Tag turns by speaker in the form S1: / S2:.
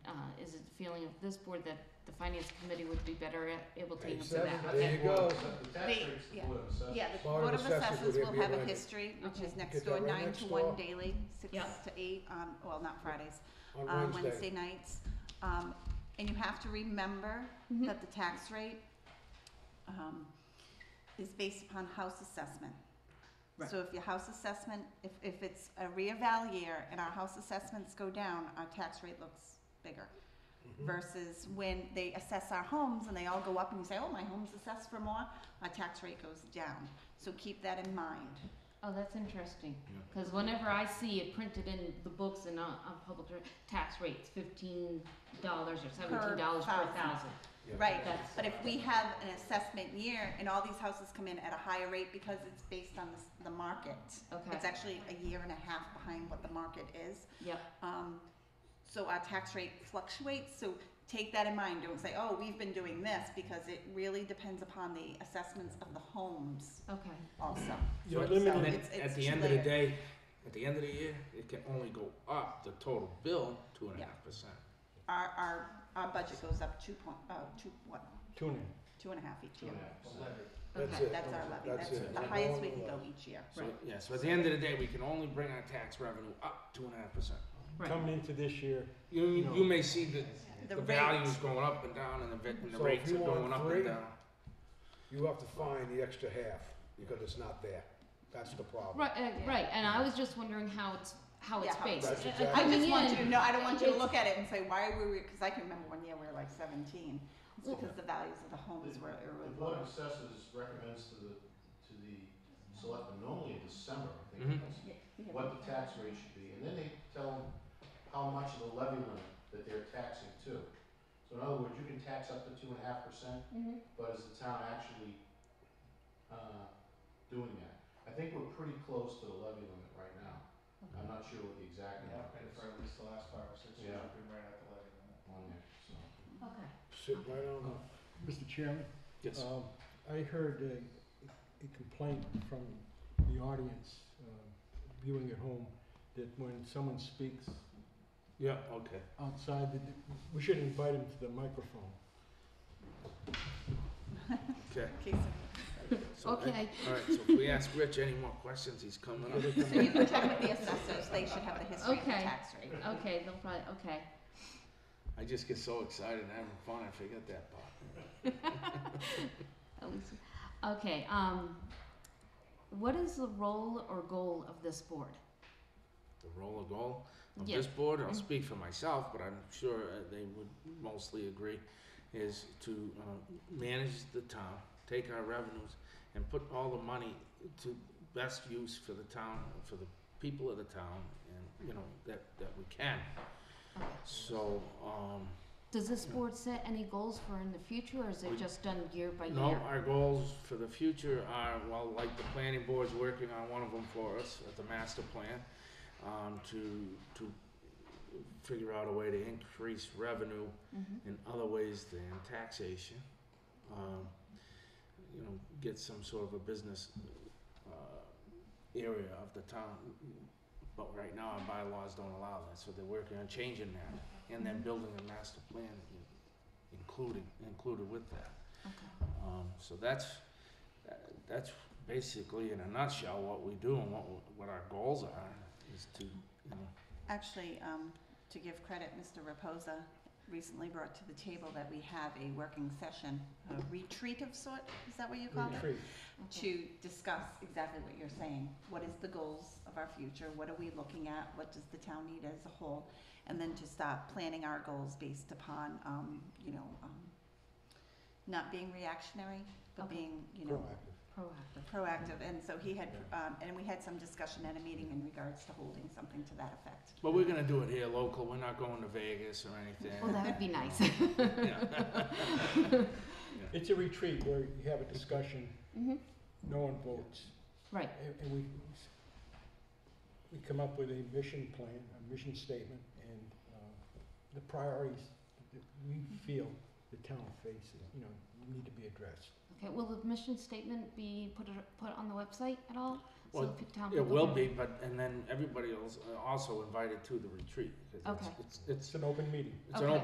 S1: uh, feeling of this board that the finance committee would be better at able to
S2: Page
S1: answer that,
S2: seven,
S1: okay?
S2: there you go.
S3: The tax
S4: The-
S3: rate's the
S4: yeah.
S3: blue, so.
S4: Yeah, the
S2: Board
S4: Board
S2: of
S4: of Assessors
S2: Assessors would
S4: will
S2: be
S4: have a
S2: right.
S4: history, which is
S1: Okay.
S2: Get
S4: next
S2: that
S4: door,
S2: right
S4: nine
S2: next
S4: to one
S2: door.
S4: daily, six
S1: Yeah.
S4: to eight on, well, not Fridays, uh,
S2: on
S4: Wednesday nights. Um, and you have to remember
S1: Mhm.
S4: that the tax rate, um, is based upon house assessment.
S1: Right.
S4: So if your house assessment, if, if it's a rear val year and our house assessments go down, our tax rate looks bigger.
S2: Mhm.
S4: Versus when they assess our homes and they all go up and you say, oh, my home's assessed for more, our tax rate goes down. So keep that in mind.
S1: Oh, that's interesting,
S2: Yeah.
S1: cause whenever I see it printed in the books and on, on public re- tax rates, fifteen dollars or seventeen dollars per
S4: thousand.
S1: thousand,
S2: Yeah.
S4: Right,
S1: That's-
S4: but if we have an assessment year and all these houses come in at a higher rate because it's based on the, s- the market.
S1: okay,
S4: It's actually a year and a half behind what the market is.
S1: yep,
S4: Um, so our tax rate fluctuates, so take that in mind, don't say, oh, we've been doing this, because it really depends upon the assessments of the homes
S1: okay,
S4: also.
S2: You're
S4: So
S2: limited-
S5: And then
S4: it's- it's
S5: at the end of the
S4: layered.
S5: day, at the end of the year, it can only go up the total bill two and a
S4: Yeah.
S5: half percent.
S4: Our, our, our budget goes up two point, uh, two, what,
S2: Tune in.
S4: two and a half each
S3: Two
S4: year.
S3: and a half percent.
S2: That's
S1: Okay.
S2: it.
S4: That's our levy,
S2: That's
S4: that's
S2: it.
S4: the highest we can go each year.
S5: So,
S1: Right.
S5: yeah, so at the end of the day, we can only bring our tax revenue up two and a half percent.
S1: right,
S2: Coming into this year,
S5: You,
S2: No.
S5: you may see the, the
S4: The rate.
S5: values going up and down and the, va- and the
S2: So if
S5: rates are
S2: you
S5: going
S2: want
S5: up
S2: three-
S5: and down.
S2: you have to find the extra half because it's not there. That's the problem.
S1: right, uh, right, and I was just wondering how it's, how it's
S4: Yeah, how it's
S1: based.
S2: That's
S1: Uh,
S2: exactly-
S4: I
S1: coming
S4: just want
S1: in-
S4: you to know, I don't want you to
S1: it's-
S4: look at it and say, why were we, because I can remember one year we were like seventeen, it's
S1: Well-
S4: because the values of the homes were,
S3: The
S4: were
S3: board
S4: low.
S3: of assessors recommends to the, to the selectmen normally in December, I think,
S2: Mm-hmm.
S5: Mhm.
S3: it is,
S4: Yeah.
S3: what the tax rate should be, and then they tell them how much of the levy limit that they're taxing to. So in other words, you can tax up to two and a half percent,
S1: Mhm.
S3: but is the town actually, uh, doing that? I think we're pretty close to the levy limit right now. I'm not sure what the exact
S6: Yeah,
S3: number
S6: and
S3: is
S6: for at least the last five or six years,
S3: Yeah.
S6: we've been right at the levy limit.
S3: on there, so.
S1: Okay.
S2: Sit right on
S7: Mr. Uh, Chairman,
S5: Yes.
S7: um, I heard a, a complaint from the audience, um, viewing at home, that when someone speaks
S5: Yeah, okay.
S7: outside, that we should invite them to the microphone.
S5: Okay.
S4: Okay, so-
S5: So,
S1: Okay.
S5: All right, so if we ask Rich any more questions, he's coming up.
S4: So you can check with the assessors, they should have the history of the
S1: Okay.
S4: tax rate.
S1: Okay, they'll probably, okay.
S5: I just get so excited and having fun, I forget that part.
S1: At least, okay, um, what is the role or goal of this board?
S5: the role of goal of
S1: Yeah.
S5: this board, I'll
S1: Mhm.
S5: speak for myself, but I'm sure uh, they would mostly agree, is to uh, manage the town, take our revenues, and put all the money to best use for the town, for the people of the town, and, you know, that, that we can. So, um,
S1: Does this board set any goals for in the future, or is it
S5: We-
S1: just done year by year?
S5: No, our goals for the future are, well, like the planning board's working on one of them for us, at the master plan, um, to, to figure out a way to increase revenue
S1: Mhm.
S5: in other ways than taxation. Um, you know, get some sort of a business, uh, area of the town. But right now, our bylaws don't allow that, so they're working on changing that, and then building a master plan in- including, included with that.
S1: Okay.
S5: Um, so that's, that- that's basically in a nutshell what we do and what, what our goals are, is to, you know,
S4: Actually, um, to give credit, Mr. Reposa recently brought to the table that we have a working session, a retreat of sort, is that what you called it?
S2: Retreat.
S4: To discuss exactly what you're saying, what is the goals of our future, what are we looking at, what does the town need as a whole? And then to start planning our goals based upon, um, you know, um, not being reactionary, but
S1: Okay.
S4: being, you know,
S2: Proactive.
S1: Proactive.
S4: proactive, and so he had, um, and we had some discussion at a meeting in regards to holding something to that effect.
S5: but we're gonna do it here local, we're not going to Vegas or
S1: Well,
S5: anything.
S1: that would be nice.
S7: It's a retreat where you have a discussion,
S1: Mhm.
S7: no one votes.
S1: Right.
S7: And, and we, we come up with a mission plan, a mission statement, and, uh, the priorities that we feel the town faces, you know, need to be addressed.
S1: Okay, will the mission statement be put, a- put on the website at all? So
S5: Well,
S1: the pe- town
S5: It
S1: people
S5: will
S1: can-
S5: be, but, and then everybody else uh, also invited to the retreat, 'cause it's-
S1: Okay.
S5: it's, it's,
S7: It's an open meeting.
S5: it's an
S1: Okay.